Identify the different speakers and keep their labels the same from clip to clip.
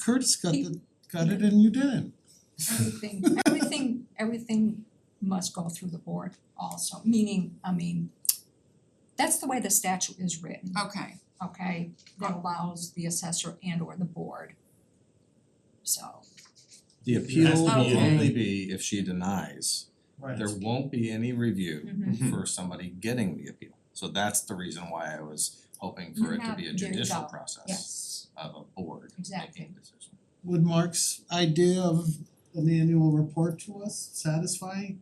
Speaker 1: Curtis got the got it and you didn't.
Speaker 2: Everything, everything, everything must go through the board also, meaning, I mean, that's the way the statute is written,
Speaker 3: Okay,
Speaker 2: okay? That allows the assessor and or the board. So,
Speaker 4: The
Speaker 1: has
Speaker 4: appeal
Speaker 1: to
Speaker 3: be
Speaker 4: will
Speaker 3: in.
Speaker 4: only be if she denies.
Speaker 1: Right.
Speaker 4: There won't be any review
Speaker 2: mhm.
Speaker 4: for somebody getting the appeal. So that's the reason why I was hoping for
Speaker 2: You
Speaker 4: it to
Speaker 2: have-
Speaker 4: be a
Speaker 2: there you
Speaker 4: judicial
Speaker 2: go.
Speaker 4: process
Speaker 2: yes,
Speaker 4: of a board
Speaker 2: Exactly.
Speaker 4: making a decision.
Speaker 1: Would Mark's idea of an annual report to us satisfy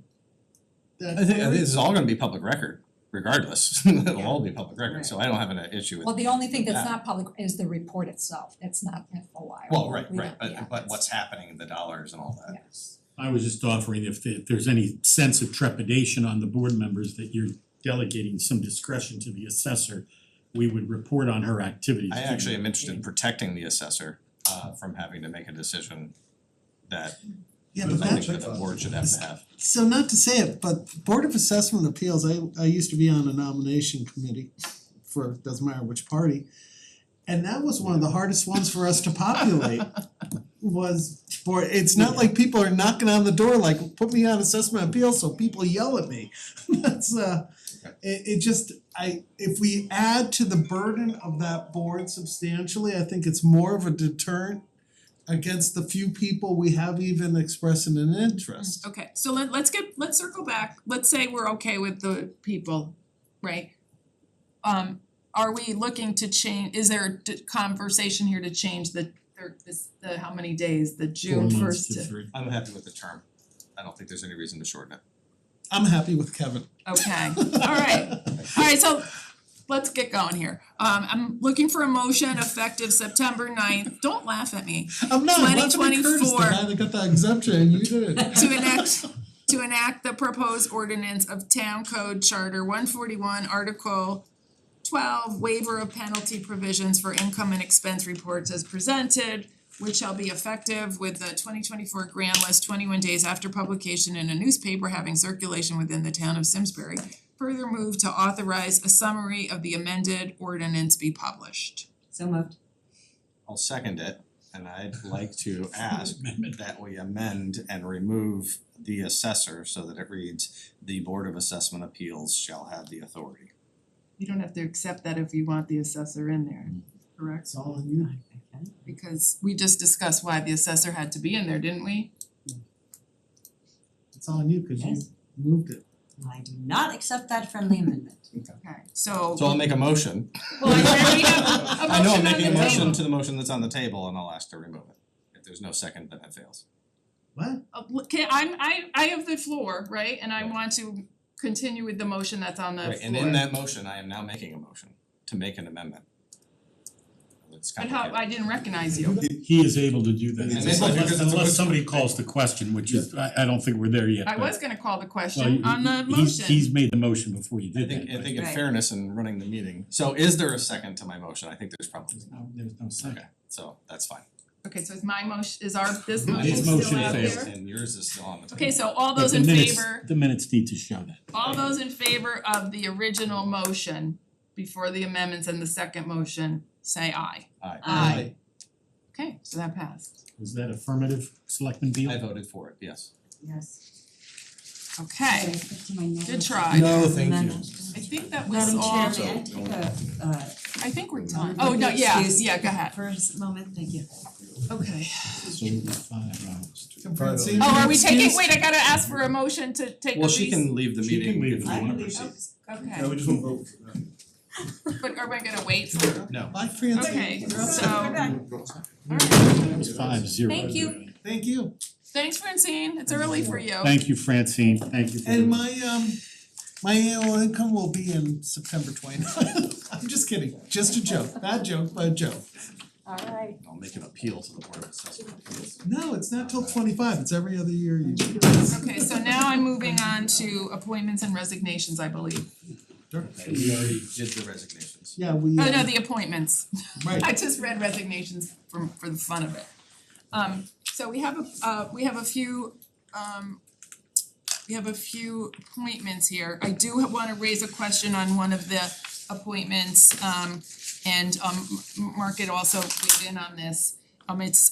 Speaker 1: that?
Speaker 4: I think I
Speaker 1: query?
Speaker 4: think this is all gonna be public record regardless. It'll
Speaker 2: Yeah.
Speaker 4: all be public record, so I don't have an issue with,
Speaker 2: well, the only thing that's
Speaker 4: Yeah.
Speaker 2: not public is the report itself, that's not FOI.
Speaker 4: well, right,
Speaker 2: We
Speaker 4: right,
Speaker 2: don't- yeah,
Speaker 4: but but
Speaker 2: that's-
Speaker 4: what's happening, the dollars and all that.
Speaker 2: Yes,
Speaker 5: I was just offering if the- if there's any sense of trepidation on the board members that you're delegating some discretion to the assessor, we would report on her activities.
Speaker 4: I
Speaker 5: to you.
Speaker 4: actually am interested in protecting the assessor uh from having to make a decision that
Speaker 1: Yeah,
Speaker 4: I
Speaker 1: but
Speaker 4: think
Speaker 1: that,
Speaker 4: that the board should have to have.
Speaker 1: so not to say it, but Board of Assessment Appeals, I I used to be on a nomination committee for doesn't matter which party. And that was one of the hardest ones for us to populate was for, it's not like people are knocking on the door like, put me on assessment appeals, so people yell at me. That's uh, it it just, I, if we add to the burden of that board substantially, I think it's more of a deterrent against the few people we have even expressing an interest.
Speaker 3: okay, so let let's get, let's circle back, let's say we're okay with the people, right? Um are we looking to change, is there a d- conversation here to change the thir- this the how many days, the
Speaker 5: Four
Speaker 3: June
Speaker 5: months
Speaker 3: first
Speaker 5: to three.
Speaker 4: I'm happy with the term. I don't think there's any reason to shorten it.
Speaker 1: I'm happy with Kevin.
Speaker 3: Okay, alright, alright, so let's get going here. Um I'm looking for a motion effective September 9th. don't laugh at me,
Speaker 1: I'm not, I'm not gonna be Curtis, the
Speaker 3: 2024.
Speaker 1: guy that got that exemption and you did
Speaker 3: to enact to enact the proposed ordinance of town code charter one forty one article twelve waiver of penalty provisions for income and expense reports as presented which shall be effective with the twenty twenty four grant list twenty one days after publication in a newspaper having circulation within the town of Simsbury. Further move to authorize a summary of the amended ordinance be published.
Speaker 6: So moved.
Speaker 4: I'll second it and I'd like to ask that we amend and remove the assessor so that it reads the Board of Assessment Appeals shall have the authority.
Speaker 3: You don't have to accept that if you want the assessor in there, correct?
Speaker 1: It's all on you.
Speaker 3: because we just discussed why the assessor had to be in there, didn't we?
Speaker 1: It's all on you because you
Speaker 6: Yes.
Speaker 1: moved it.
Speaker 6: I do not accept that friendly amendment.
Speaker 3: Okay, so.
Speaker 4: So I'll make a motion.
Speaker 3: Well, I already have a
Speaker 4: I know
Speaker 3: motion
Speaker 4: I'm
Speaker 3: on
Speaker 4: making a
Speaker 3: the
Speaker 4: motion
Speaker 3: table.
Speaker 4: to the motion that's on the table and I'll ask to remove it. If there's no second, then it fails.
Speaker 1: What?
Speaker 3: Uh, look, can- I'm I I have the floor, right, and I want to continue with the motion that's on the floor.
Speaker 4: Right, and in that motion, I am now making a motion to make an amendment. It's
Speaker 3: But how,
Speaker 4: complicated.
Speaker 3: I didn't recognize you,
Speaker 5: He is able to do that
Speaker 4: It's
Speaker 5: unless
Speaker 4: able to, 'cause it's a
Speaker 5: unless
Speaker 4: good-
Speaker 5: somebody calls the question, which is, I I don't think we're there yet,
Speaker 3: I
Speaker 5: but-
Speaker 3: was gonna call the
Speaker 5: Well,
Speaker 3: question on the
Speaker 5: he- he's
Speaker 3: motion.
Speaker 5: he's made the motion before you
Speaker 4: I
Speaker 5: did that,
Speaker 4: think I
Speaker 5: but-
Speaker 4: think in
Speaker 3: Right.
Speaker 4: fairness in running the meeting, so is there a second to my motion? I think there's probably,
Speaker 5: There's no, there's no second.
Speaker 4: okay, so that's fine.
Speaker 3: Okay, so is my motion, is our, this motion
Speaker 5: His
Speaker 3: still out there?
Speaker 5: motion failed. fails.
Speaker 4: And yours is still on the table.
Speaker 3: Okay, so all
Speaker 5: But
Speaker 3: those
Speaker 5: the
Speaker 3: in
Speaker 5: minutes-
Speaker 3: favor,
Speaker 5: The minutes need to show that.
Speaker 3: all those in favor of the original motion before the amendments and the second motion, say aye.
Speaker 4: Aye.
Speaker 3: Aye. Okay, so that passed.
Speaker 5: Was that affirmative, Selectman Beal?
Speaker 4: I voted for it, yes.
Speaker 6: Um, Yes.
Speaker 3: Okay, good try.
Speaker 4: No, thank you.
Speaker 3: I think that was
Speaker 6: Madam
Speaker 3: all,
Speaker 6: Chair, may I take a uh
Speaker 3: I think we're done.
Speaker 6: um,
Speaker 3: Oh, no, yeah,
Speaker 6: excuse
Speaker 3: yeah, go ahead.
Speaker 6: for a s- moment, thank you.
Speaker 3: Okay.
Speaker 5: So it'll be five hours.
Speaker 1: Francine,
Speaker 3: Oh, are we taking,
Speaker 1: excuse-
Speaker 3: wait, I gotta ask for a motion to take a
Speaker 4: Well, she
Speaker 3: recess.
Speaker 4: can leave the
Speaker 5: She can
Speaker 4: meeting
Speaker 5: leave
Speaker 4: if
Speaker 5: if
Speaker 4: you
Speaker 5: you
Speaker 4: wanna
Speaker 5: want.
Speaker 6: oh,
Speaker 4: proceed.
Speaker 3: Okay,
Speaker 7: we just won't vote for that.
Speaker 3: but are we gonna wait for?
Speaker 4: No,
Speaker 1: Bye, Francine.
Speaker 3: Okay,
Speaker 1: You're up.
Speaker 3: so-
Speaker 6: We're back.
Speaker 3: Alright,
Speaker 5: It was five zero.
Speaker 6: Thank you.
Speaker 1: Thank you.
Speaker 3: thanks Francine, it's early for you.
Speaker 5: Thank you, Francine, thank you for.
Speaker 1: And my um, my annual income will be in September twenty ninth. I'm just kidding, just a joke, bad joke, but a joke.
Speaker 2: alright.
Speaker 4: I'll make an appeal to the Board of Assessment Appeals.
Speaker 1: No, it's not till twenty five, it's every other year you do
Speaker 3: Okay, so now I'm moving on to appointments and resignations, I believe.
Speaker 1: it.
Speaker 4: We already did the resignations.
Speaker 1: Yeah, we
Speaker 3: Oh, no,
Speaker 1: uh,
Speaker 3: the appointments. I
Speaker 1: right,
Speaker 3: just read resignations for for the fun of it. Um so we have a uh we have a few um we have a few appointments here. I do wanna raise a question on one of the appointments um and um M- Mark had also weighed in on this. Um it's